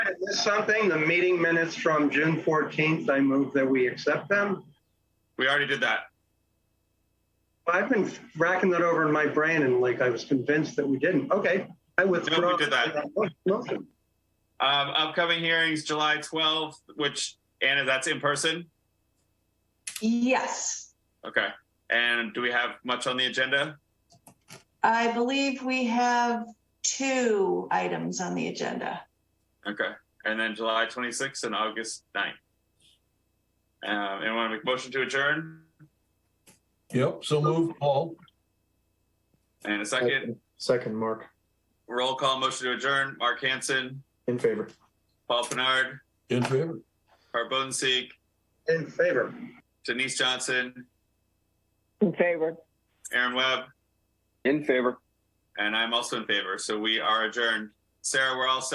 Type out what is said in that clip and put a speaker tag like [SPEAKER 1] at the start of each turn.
[SPEAKER 1] something, the meeting minutes from June fourteenth, I move that we accept them.
[SPEAKER 2] We already did that.
[SPEAKER 1] I've been racking that over in my brain and like I was convinced that we didn't. Okay, I withdraw.
[SPEAKER 2] did that.
[SPEAKER 1] Motion.
[SPEAKER 2] Um, upcoming hearings, July 12th, which, Anna, that's in person?
[SPEAKER 3] Yes,
[SPEAKER 2] Okay. And do we have much on the agenda?
[SPEAKER 3] I believe we have two items on the agenda.
[SPEAKER 2] Okay. And then July 26th and August 9th. Um, anyone want to make a motion to adjourn?
[SPEAKER 4] Yep, so move, Paul.
[SPEAKER 2] And a second,
[SPEAKER 5] Second, Mark,
[SPEAKER 2] roll call motion to adjourn, Mark Hanson,
[SPEAKER 5] in favor.
[SPEAKER 2] Paul Pinard,
[SPEAKER 4] In favor?
[SPEAKER 2] Harp Bodenseek,
[SPEAKER 1] In favor.
[SPEAKER 2] Denise Johnson,
[SPEAKER 6] In favor.
[SPEAKER 2] Aaron Webb,
[SPEAKER 6] In favor.
[SPEAKER 2] and I'm also in favor. So we are adjourned. Sarah, we're all set.